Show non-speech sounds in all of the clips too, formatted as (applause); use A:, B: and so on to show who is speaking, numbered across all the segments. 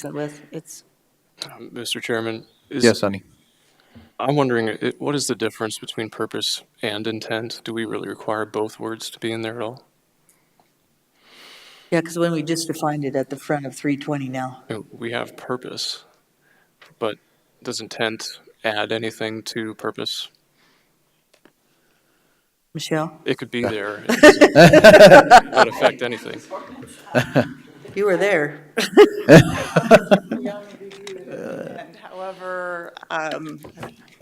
A: consistent with. It's,
B: Mr. Chairman? is-
C: Yes, Sonny.
B: I'm wondering, it- what is the difference between purpose and intent? Do we really require both words to be in there at all?
D: Yeah, because when we just defined it at the front of 320 now,
B: You know, We have purpose, but does intent add anything to purpose?
D: Michelle,
B: It could be there. It doesn't- Not affect anything.
D: you were there.
E: And However, um,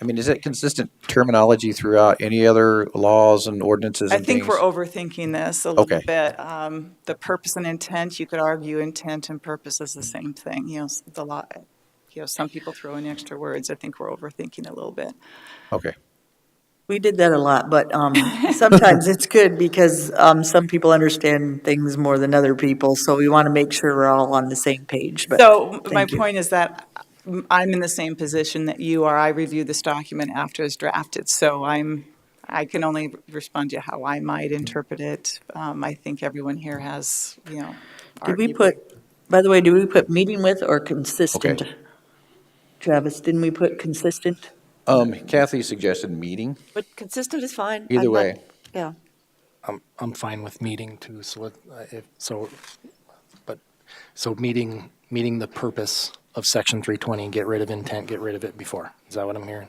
C: I mean, is that consistent terminology throughout any other laws and ordinances
E: I
C: and things?
E: think we're overthinking this a little
C: Okay.
E: bit. Um, The purpose and intent, you could argue intent and purpose is the same thing, you know, s- the lot, you know, some people throw in extra words. I think we're overthinking a little bit.
C: Okay.
D: We did that a lot, but um, sometimes it's good because um, some people understand things more than other people, so we want to make sure we're all on the same page, but.
E: So my
D: thank you.
E: point is that mm, I'm in the same position that you are. I reviewed this document after it's drafted, so I'm, I can only respond to how I might interpret it. Um, I think everyone here has, you know.
D: Did we
E: argued-
D: put, by the way, do we put meeting with or consistent?
C: Okay.
D: Travis, didn't we put consistent?
C: Um, Kathy suggested meeting.
A: but consistent is fine.
C: Either
A: I'm not-
C: way.
A: Yeah.
F: I'm, I'm fine with meeting too, so let, uh, if, so, but, so meeting, meeting the purpose of section three twenty, get rid of intent, get rid of it before. Is that what I'm hearing?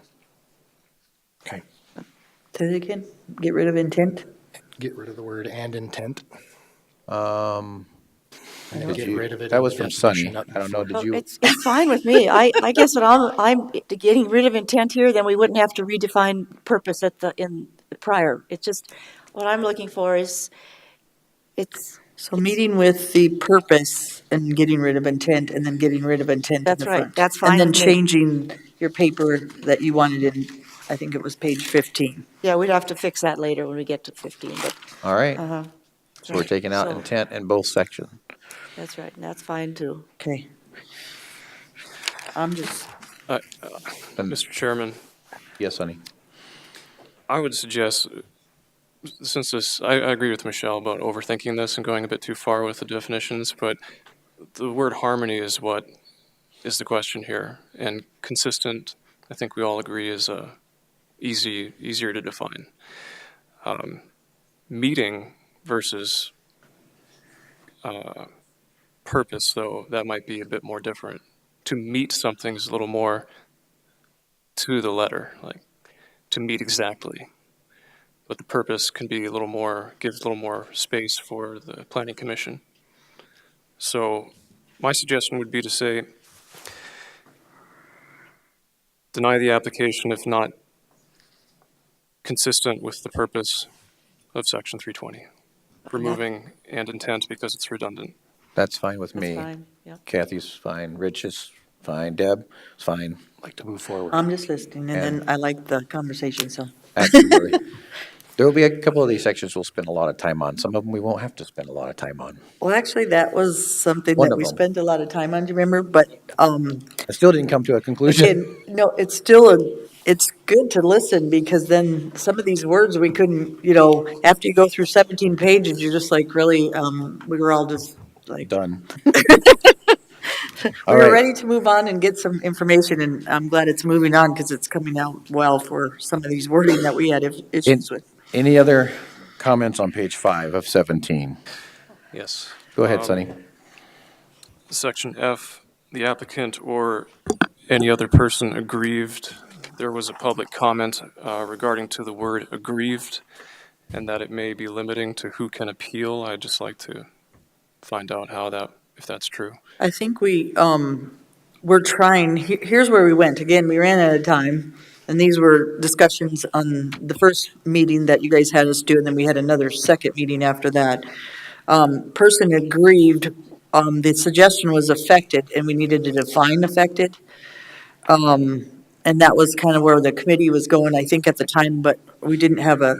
F: Okay,
D: Say that again, get rid of intent?
F: get rid of the word and intent.
C: Um, I
F: and
C: think
F: Get
C: you-
F: rid of it.
C: That
F: in
C: was
F: the
C: from Sonny.
F: definition, not
C: I don't know, did
A: Well,
C: you?
A: It's, it's fine with me. I, I guess that I'm, I'm getting rid of intent here, then we wouldn't have to redefine purpose at the, in the prior. It's just, what I'm looking for is, it's,
D: So meeting with the purpose and getting rid of intent, and then getting rid of intent in
A: That's
D: the
A: right.
D: front.
A: That's fine
D: And then
A: with me.
D: changing your paper that you wanted in, I think it was page 15.
A: yeah, we'd have to fix that later when we get to 15, but
C: All right,
A: Uh-huh.
C: so we're taking out
A: So-
C: intent in both sections.
A: That's right, and that's fine too.
D: Okay. I'm just,
B: Mr. Chairman?
C: Yes, Sonny.
B: I would suggest, since this, I, I agree with Michelle about overthinking this and going a bit too far with the definitions, but the word harmony is what is the question here. And consistent, I think we all agree, is uh, easy, easier to define. Um, meeting versus uh, purpose, though, that might be a bit more different. To meet something is a little more to the letter, like to meet exactly. But the purpose can be a little more, gives a little more space for the planning commission. So my suggestion would be to say, deny the application if not consistent with the purpose of section 320, removing and intent because it's redundant.
C: That's fine with
A: That's
C: me.
A: fine, yeah.
C: Kathy's fine, Rich is fine, Deb is fine.
F: Like to move forward.
D: I'm just listening, and then I like the conversation, so.
C: Absolutely.
A: (laughs)
C: There will be a couple of these sections we'll spend a lot of time on. Some of them we won't have to spend a lot of time on.
D: Well, actually, that was something
C: One
D: that
C: of
D: we
C: them.
D: spent a lot of time on, do you remember? But, um,
C: I still didn't come to a conclusion.
D: And, no, it's still, a. it's good to listen, because then some of these words we couldn't, you know, after you go through 17 pages, you're just like, really, um, we were all just like, (laughs)
C: Done.
D: we
C: All
D: were
C: right,
D: ready to move on and get some information, and I'm glad it's moving on, because it's coming out well for some of these wording that we had issues with.
C: any other comments on page five of 17?
B: Yes.
C: Go ahead,
B: Um,
C: Sonny.
B: Section F, the applicant or any other person aggrieved. There was a public comment uh, regarding to the word aggrieved and that it may be limiting to who can appeal. I'd just like to find out how that, if that's true.
D: I think we, um, we're trying, he- here's where we went. Again, we ran out of time, and these were discussions on the first meeting that you guys had us do, and then we had another second meeting after that. Um, person aggrieved, um, the suggestion was affected, and we needed to define affected. Um, and that was kind of where the committee was going, I think, at the time, but we didn't have a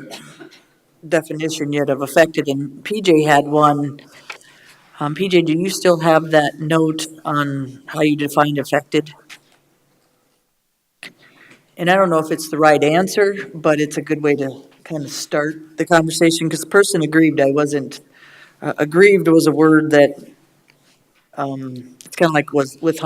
D: definition yet of affected, and PJ had one. Um, PJ, do you still have that note on how you defined affected? And I don't know if it's the right answer, but it's a good way to kind of start the conversation, because person aggrieved, I wasn't, uh, aggrieved was a word that, um, It's kind of like was with